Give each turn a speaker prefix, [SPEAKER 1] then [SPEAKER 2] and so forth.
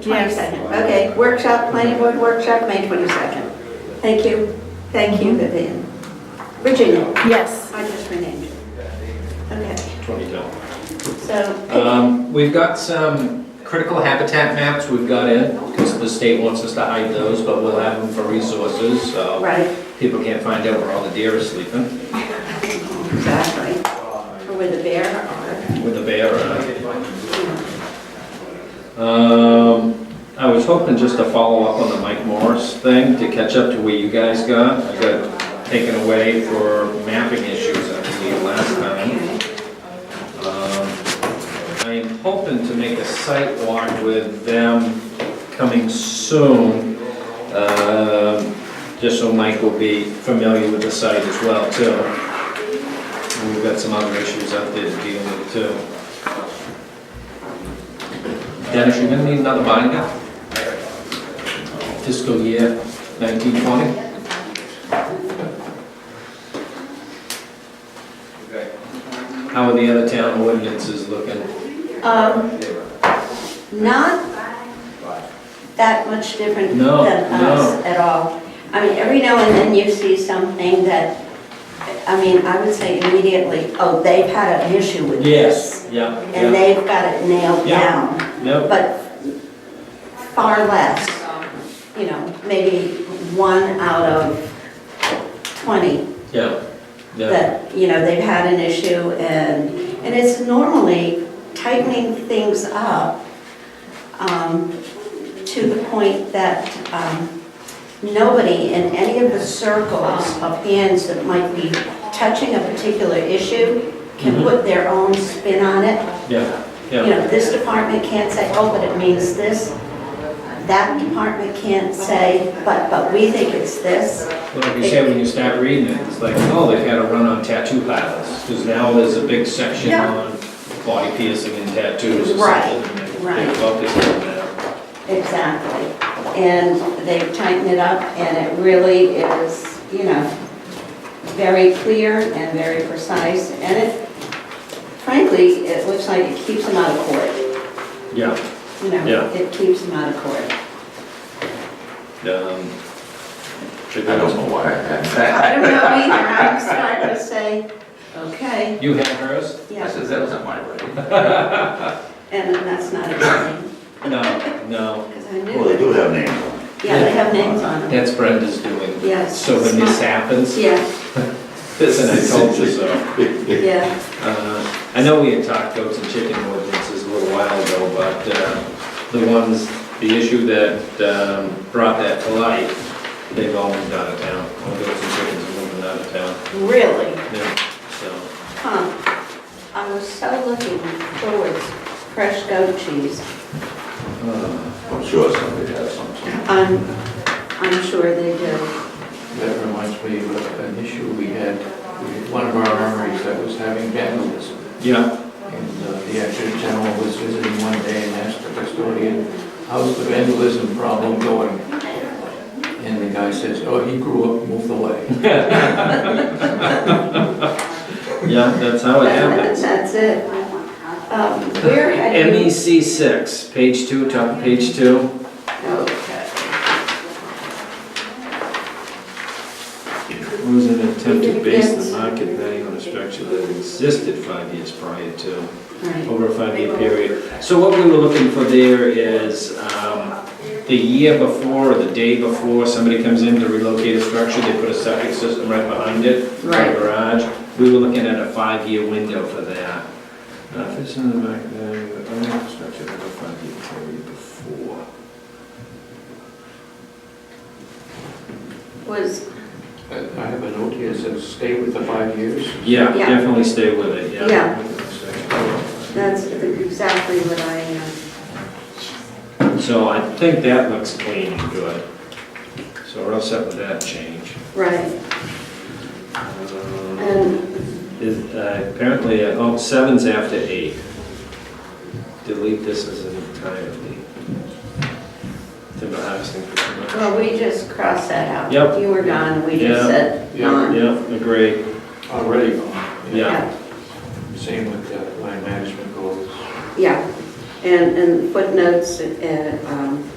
[SPEAKER 1] 22nd, okay. Workshop, planning board workshop, May 22nd. Thank you, thank you, Vivian. Virginia,
[SPEAKER 2] Yes.
[SPEAKER 1] I just renamed you. Okay,
[SPEAKER 3] 22nd.
[SPEAKER 1] so,
[SPEAKER 3] Um, We've got some critical habitat maps we've got in, because the state wants us to hide those, but we'll have them for resources, so
[SPEAKER 1] right,
[SPEAKER 3] people can't find out where all the deer are sleeping,
[SPEAKER 1] exactly. Or where the bear are.
[SPEAKER 3] with the bear are. Um, I was hoping just to follow up on the Mike Morris thing, to catch up to where you guys got. I got taken away for mapping issues, I believe, last time. Um, I am hoping to make a site walk with them coming soon, um, just so Mike will be familiar with the site as well, too. And We've got some other issues out there to deal with, too. Dennis, you're gonna need another binder? Fiscal year 1920? How are the other town ordinances looking?
[SPEAKER 1] Um, Not that much different than
[SPEAKER 3] No,
[SPEAKER 1] us at all. I mean, every now and then you see something that, I mean, I would say immediately, oh, they've had an issue with this.
[SPEAKER 3] Yes, yeah,
[SPEAKER 1] And
[SPEAKER 3] yeah,
[SPEAKER 1] they've got it nailed
[SPEAKER 3] Yeah.
[SPEAKER 1] down,
[SPEAKER 3] no,
[SPEAKER 1] but far less, you know, maybe one out of 20
[SPEAKER 3] yeah, yeah.
[SPEAKER 1] that, you know, they've had an issue and, and it's normally tightening things up um, to the point that um, nobody in any of the circles of hands that might be touching a particular issue can
[SPEAKER 3] Mhm.
[SPEAKER 1] put their own spin on it.
[SPEAKER 3] Yeah,
[SPEAKER 1] You
[SPEAKER 3] yeah,
[SPEAKER 1] know, this department can't say, oh, but it means this. That department can't say, but, but we think it's this.
[SPEAKER 3] Well, like you said, when you start reading it, it's like, oh, they've had a run on tattoo pilots, because now there's a big section
[SPEAKER 1] Yeah.
[SPEAKER 3] on body piercing and tattoos or
[SPEAKER 1] Right,
[SPEAKER 3] something. and they- they
[SPEAKER 1] right.
[SPEAKER 3] focus on that.
[SPEAKER 1] Exactly. And they've tightened it up, and it really is, you know, very clear and very precise, and it, frankly, it looks like it keeps them out of court,
[SPEAKER 3] Yeah,
[SPEAKER 1] you know?
[SPEAKER 3] Yeah.
[SPEAKER 1] It keeps them out of court.
[SPEAKER 3] um. check
[SPEAKER 4] I
[SPEAKER 3] that
[SPEAKER 4] don't
[SPEAKER 3] out.
[SPEAKER 4] know why I had
[SPEAKER 1] I
[SPEAKER 4] that.
[SPEAKER 1] don't know either, I'm starting to say, okay,
[SPEAKER 3] You had hers?
[SPEAKER 4] I
[SPEAKER 1] yeah,
[SPEAKER 4] said, that wasn't my writing.
[SPEAKER 1] and that's not a good thing,
[SPEAKER 3] No, no,
[SPEAKER 1] because I knew
[SPEAKER 4] Well, they
[SPEAKER 1] it.
[SPEAKER 4] do have names on it.
[SPEAKER 1] Yeah, they have names on them.
[SPEAKER 3] that's Brenda's doing.
[SPEAKER 1] Yes.
[SPEAKER 3] So when this happens,
[SPEAKER 1] Yeah,
[SPEAKER 3] listen, I told you so.
[SPEAKER 1] yeah.
[SPEAKER 3] Uh, I know we had talked goats and chicken ordinances a little while ago, but uh, the ones, the issue that um, brought that to light, they've all moved out of town. All goats and chickens are moving out of town.
[SPEAKER 1] Really?
[SPEAKER 3] Yeah, so,
[SPEAKER 1] Huh. I was so looking forward to fresh goat cheese.
[SPEAKER 3] uh,
[SPEAKER 4] I'm sure somebody has something.
[SPEAKER 1] I'm, I'm sure they do.
[SPEAKER 5] That reminds me of an issue we had, with one of our armories that was having vandalism.
[SPEAKER 3] Yeah,
[SPEAKER 5] And uh, the actor general was visiting one day and asked the custodian, how's the vandalism problem going? And the guy says, oh, he grew up, moved away.
[SPEAKER 3] Oh, yeah, that's how it happens.
[SPEAKER 1] That's it. Um, Where had you?
[SPEAKER 3] MEC six, page two, top of page two.
[SPEAKER 1] Okay.
[SPEAKER 3] Was an attempt to base the market value on a structure that existed five years prior to.
[SPEAKER 1] Right.
[SPEAKER 3] over a five-year period. So what we were looking for there is, um, the year before or the day before, somebody comes in to relocate a structure, they put a septic system right behind it, or a
[SPEAKER 1] Right.
[SPEAKER 3] garage. We were looking at a five-year window for that. Uh, if it's in the back there, the owner structure over a five-year period before.
[SPEAKER 1] Was,
[SPEAKER 5] I I have a note here that says, stay with the five years.
[SPEAKER 3] Yeah,
[SPEAKER 1] Yeah.
[SPEAKER 3] definitely stay with it, yeah.
[SPEAKER 1] Yeah. that's exactly what I, uh,
[SPEAKER 3] So I think that looks clean and good. So we're all set with that change.
[SPEAKER 1] right.
[SPEAKER 3] Um,
[SPEAKER 1] And,
[SPEAKER 3] Is, uh, apparently, uh, oh, seven's after eight. Delete this as an entirely. Timber harvesting for timber.
[SPEAKER 1] well, we just crossed that out.
[SPEAKER 3] Yep.
[SPEAKER 1] You were gone, we
[SPEAKER 3] Yeah.
[SPEAKER 1] just said
[SPEAKER 5] Yeah.
[SPEAKER 1] gone.
[SPEAKER 3] Yeah, agree,
[SPEAKER 5] Already
[SPEAKER 3] yeah.
[SPEAKER 5] Same with uh, land management goals.
[SPEAKER 1] Yeah, and, and footnotes and, um,